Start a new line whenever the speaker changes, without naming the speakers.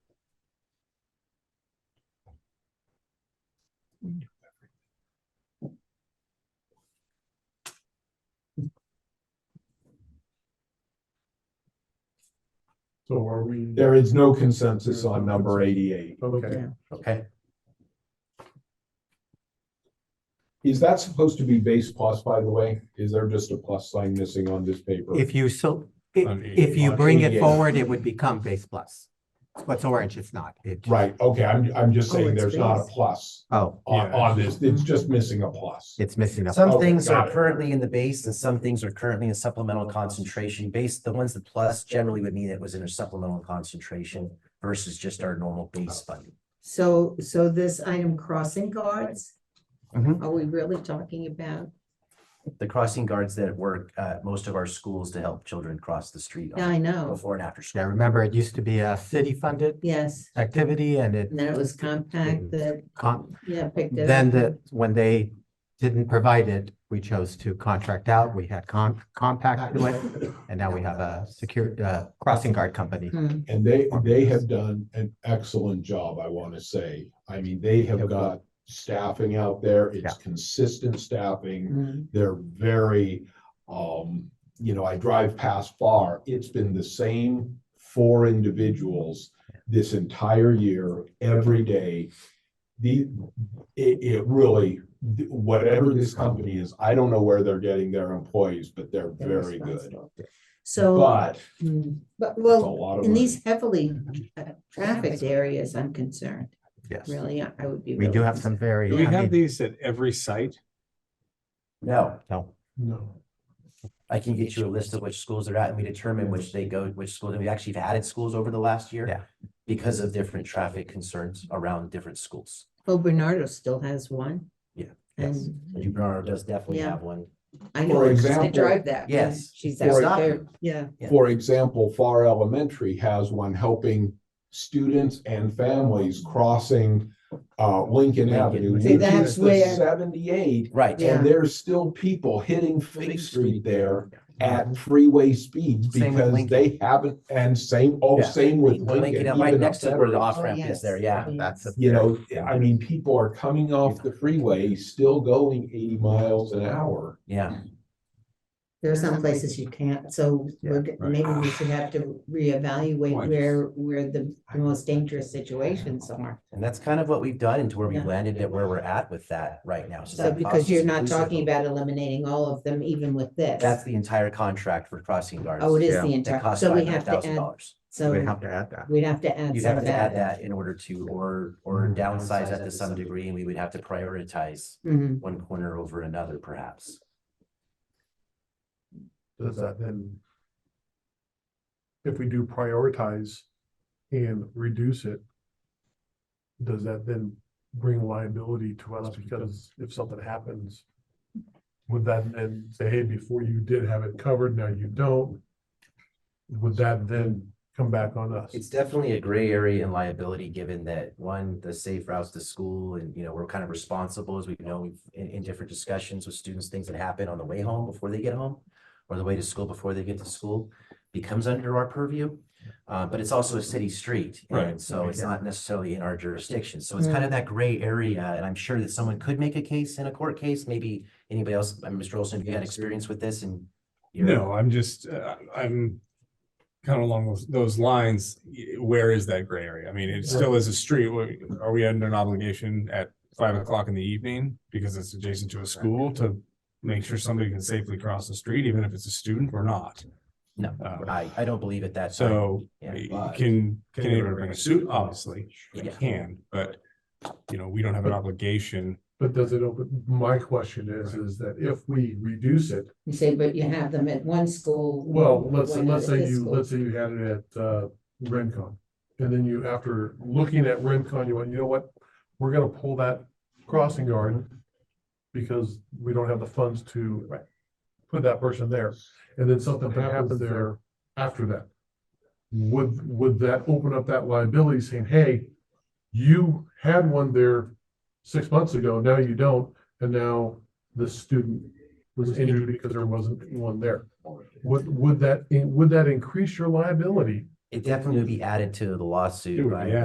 So are we?
There is no consensus on number eighty-eight.
Okay,
Okay,
Is that supposed to be base plus, by the way? Is there just a plus sign missing on this paper?
if you so, i-
On
if you
88.
bring it
Yeah.
forward, it would become base plus. What's orange, it's not. It-
Right, okay, I'm, I'm just
Oh,
saying
it's
there's not a
base.
plus
Oh,
on,
Yeah.
on this. It's just missing a plus.
it's missing a.
Some
Okay,
things
got
are
it.
currently in the base and some things are currently in supplemental concentration base. The ones that plus generally would mean it was in a supplemental concentration versus just our normal base funding.
So, so this item crossing guards?
Mhm.
Are we really talking about?
The crossing guards that work at most of our schools to help children cross the street
Yeah, I
on
know,
before and after
Yeah,
school.
remember, it used to be a city-funded
yes.
activity and it
And then it was compact that,
con-
yeah, picked Mm. it
then
up.
the, when they didn't provide it, we chose to contract out. We had con- compact to it. And now we have a secure, uh, crossing guard company.
Hmm.
And they, they have done an excellent job, I want to say. I mean, they have got staffing out there. It's consistent staffing.
Mm.
They're very, um, you know, I drive past far. It's been the same four individuals this entire year, every day. The, it, it really, whatever this company is, I don't know where they're getting their employees, but they're
They're
very good.
responsible. So,
But
mm, but
it's a
well,
lot of
in
money.
these heavily uh, trafficked areas, I'm concerned,
Yes.
really, I I would be.
We
really
do have some very.
do we
I mean,
have these at every site?
No,
No,
No.
I can get you a list of which schools they're at and we determine which they go, which schools. And we actually have added schools over the last year.
Yeah.
Because of different traffic concerns around different schools.
Well, Oh, Bernardo still has one.
Yeah.
Yes.
And
New Bernardo does definitely
Yeah.
have one.
I
For
know, because I
example-
drive that. one.
Yes.
She's
For
out
example-
there, yeah.
Yeah.
For example, Far Elementary has one helping students and families crossing uh Lincoln
Lincoln.
Avenue, which
See,
is
that's
the
where-
seventy-eight.
Right.
Yeah.
And there's still people hitting Fifth Street there
Mm-hmm.
at freeway speeds
Same with
because
Lincoln.
they haven't, and same, oh,
Yeah.
same with
Lincoln,
Lincoln.
up right
even
next to
up
where the
there.
off
Oh,
ramp is
yes.
there, yeah.
that's a.
You know, I mean, people are coming off the freeway, still going eighty miles an hour.
Yeah,
There are some places you can't, so we're, g-
right.
maybe we should have to
Why?
reevaluate where, where the most dangerous situations are.
and that's kind of what we've done and to where we
Yeah.
landed at where we're at with that right now.
So
that
because
process
you're
is
not
inclusive
talking
of-
about eliminating all of them, even with
That's
this.
the entire contract for crossing guards.
Oh, it is
Yeah.
the
That
entire,
costs
so we
five
have
hundred
to
thousand
add,
dollars.
so
We have to add that.
we'd have to add
You'd
some
have
of
to add
that.
that in order to, or, or
Mm.
downsize that to some degree, and we would have to prioritize
Mhm.
one corner over another perhaps.
Does that then? If we do prioritize and reduce it. Does that then bring liability to us because if something happens? Would that then say, hey, before you did have it covered, now you don't? Would that then come back on us?
It's definitely a gray area in liability, given that, one, the safe routes to school and, you know, we're kind of responsible, as we know, we've, in, in different discussions with students, things that happen on the way home before they get home or the way to school before they get to school becomes under our purview. Uh, but it's also a city street, and
Right.
so it's not necessarily in our jurisdiction. So it's kind of that gray area, and I'm sure that someone could make a case in a court case, maybe anybody else, I mean, Mr. Olson, if you had experience with this and you're-
No, I'm just, uh, I'm kind of along those, those lines. Y- Where is that gray area? I mean, it still is a street. Wh- Are we under an obligation at five o'clock in the evening because it's adjacent to a school to make sure somebody can safely cross the street, even if it's a student or not?
No,
Uh,
I, I don't believe it that. time.
So
Yeah.
y-
But-
can, can anyone bring a suit? Obviously, you
Yeah.
can, but you know, we don't have an obligation.
But does it open, my question is, is that if we reduce it,
You say, but you have them at one school.
well, let's,
one
let's
at
say
this
you,
school.
let's say you had it at, uh, Rencon. And then you, after looking at Rencon, you went, you know what, we're gonna pull that crossing guard because we don't have the funds to put that person there. And then something happens there after that. Would, would that open up that liability saying, hey, you had one there six months ago, now you don't, and now the student was injured because there wasn't one there. Would, would that, would that increase your liability?
It definitely would be added to the
It
lawsuit
would be
by
added.